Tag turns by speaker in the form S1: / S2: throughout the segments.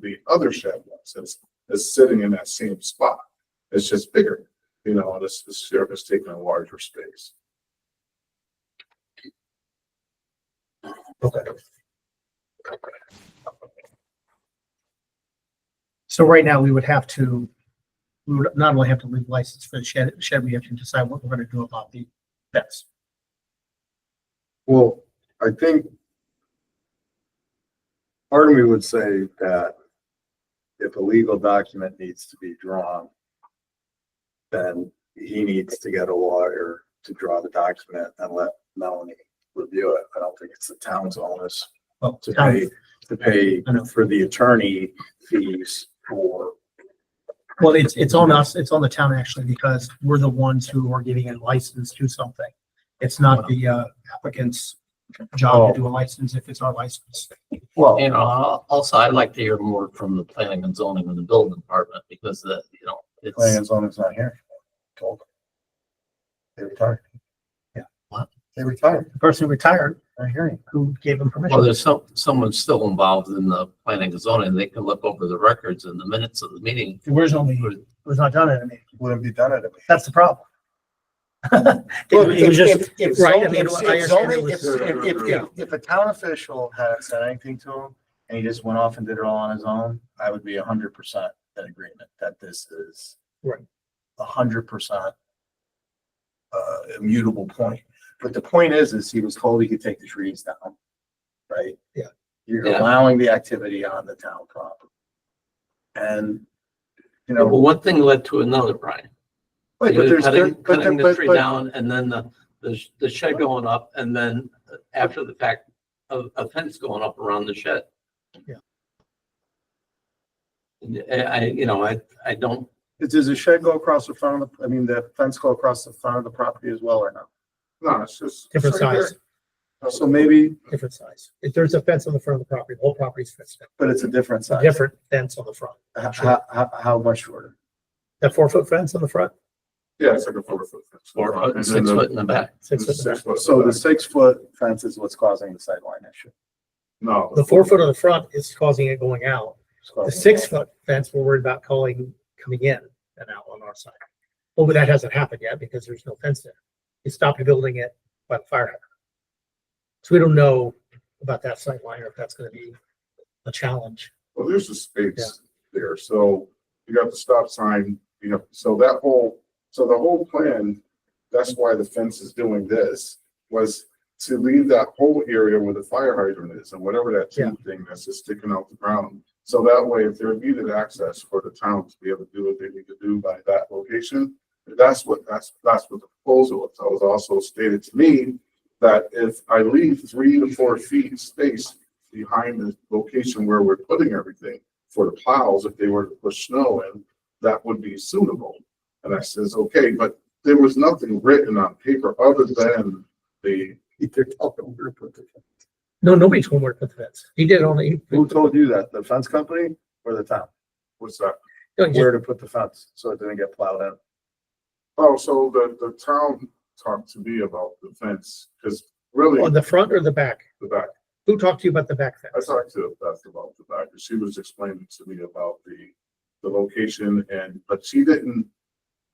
S1: the other shed was, it's, it's sitting in that same spot. It's just bigger, you know, and it's, the sheriff is taking a larger space.
S2: So right now, we would have to, we would not only have to leave license for the shed, shed, we have to decide what we're gonna do about the fence.
S3: Well, I think part of me would say that if a legal document needs to be drawn, then he needs to get a lawyer to draw the document and let Melanie review it. I don't think it's the town's onus
S2: Well,
S3: to
S2: town-
S3: pay, to pay
S2: I know.
S3: for the attorney fees for,
S2: Well, it's, it's on us, it's on the town actually, because we're the ones who are giving a license to something. It's not the uh, applicant's job to do a license if it's our license.
S3: well,
S4: And al- also, I'd like to hear more from the planning and zoning and the building department because the, you know,
S3: planning
S4: it's,
S3: and zoning's not here. Told them. They retired. Yeah.
S4: What?
S3: They retired.
S2: The person retired
S3: I hear you.
S2: who gave him
S4: well,
S2: permission.
S4: there's some, someone's still involved in the planning and zoning. They can look over the records and the minutes of the meeting.
S2: It was only, it was not done at a meeting.
S3: Wouldn't be done at a meeting.
S2: That's the problem.
S5: Well,
S2: It was
S5: if-
S2: just,
S5: if- if
S2: right, I
S5: zoning-
S2: mean,
S5: if-
S2: I
S5: if
S2: understand it
S5: zoning-
S2: was-
S5: if- if- if-
S2: Yeah.
S5: If a town official hadn't said anything to him and he just went off and did it all on his own, I would be hundred percent in agreement that this is
S2: Right.
S5: hundred percent uh, immutable point. But the point is, is he was told he could take the trees down, right?
S2: Yeah.
S5: You're
S4: Yeah.
S5: allowing the activity on the town property. And, you
S4: But
S5: know,
S4: one thing led to another, Brian.
S5: but
S4: Either
S5: there's, there-
S4: Cutting,
S5: but, there-
S4: cutting the
S5: but,
S4: tree
S5: but,
S4: down and then the, the sh- the shed going up and then after the fact, a, a fence going up around the shed.
S2: Yeah.
S4: And I, I- you know, I, I don't,
S5: Does the shed go across the front of the, I mean, the fence go across the front of the property as well or not?
S1: No, it's just.
S2: Different size,
S5: So maybe,
S2: different size. If there's a fence on the front of the property, the whole property's fenced in.
S5: but it's a different
S2: It's a
S5: size.
S2: different fence on the front.
S5: H- How, how, how much shorter?
S2: That four foot fence on the front,
S1: Yeah, it's like a four foot.
S4: four foot, and
S1: And then
S4: six
S1: the-
S4: foot in the back.
S2: six foot. in the
S1: Six
S2: back.
S1: foot.
S5: So the six foot fence is what's causing the sightline issue.
S1: No.
S2: The four foot on the front is causing it going out.
S5: It's causing
S2: The six foot fence, we're worried about calling, coming in and out on our side. Well, but that hasn't happened yet because there's no fence there. He stopped building it by the fire hydrant. So we don't know about that sight line or if that's gonna be a challenge.
S1: Well, there's a
S2: Yeah.
S1: space there, so you got the stop sign, you know, so that whole, so the whole plan, that's why the fence is doing this, was to leave that whole area where the fire hydrant is and whatever that tube thing that's just sticking out the ground. So that way, if there needed access for the town to be able to do what they need to do by that location, that's what, that's, that's what the proposal was. That was also stated to me that if I leave three to four feet space behind the location where we're putting everything for the plows, if they were to push snow in, that would be suitable. And I says, okay, but there was nothing written on paper other than the,
S3: They're telling them where to put the-
S2: No, nobody told him where to put the fence. He did only,
S3: Who told you that? The fence company or the town?
S1: what's that?
S2: no, he just-
S3: Where to put the fence so it didn't get plowed in?
S1: Oh, so the, the town talked to me about the fence, because really,
S2: on the front or the back?
S1: the back,
S2: Who talked to you about the back
S1: I
S2: fence?
S1: talked to Beth about the back, and she was explaining to me about the, the location and, but she didn't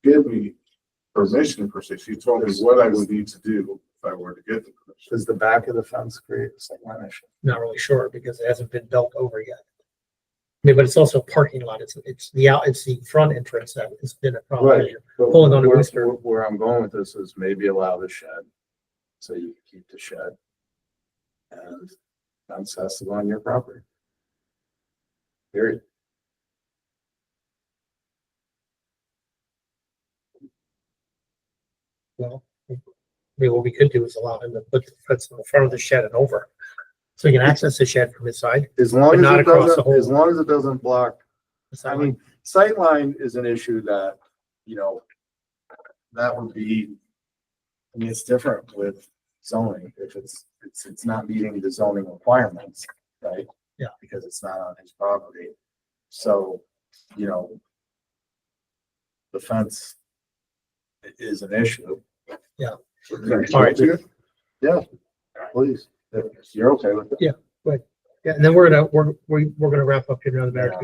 S1: give me permission per se. She told me what I would need to do if I were to get the permission.
S3: Does the back of the fence create a sightline issue?
S2: Not really sure because it hasn't been built over yet. I mean, but it's also a parking lot. It's, it's the out, it's the front entrance that has been a problem.
S3: Right.
S2: Pulling on a
S3: Where-
S2: rooster.
S3: where- Where I'm going with this is maybe allow the shed, so you can keep the shed. And fence has to go on your property. Period.
S2: Well, I mean, what we could do is allow him to put the fence in the front of the shed and over. So he can access the shed from his side.
S3: As
S2: But
S3: long as
S2: not
S3: it
S2: across the
S3: doesn't,
S2: whole-
S3: as long as it doesn't block
S2: It's
S3: I
S2: not
S3: mean,
S2: like-
S3: sightline is an issue that, you know, that would be,
S5: I mean, it's different with zoning. If it's, it's, it's not meeting the zoning requirements, right?
S2: Yeah.
S5: Because it's not on his property. So, you know, the fence i- is an issue.
S2: All right.
S3: please.
S5: If You're okay with it?
S2: Yeah, and then we're gonna, we're, we- we're gonna wrap up here in another minute.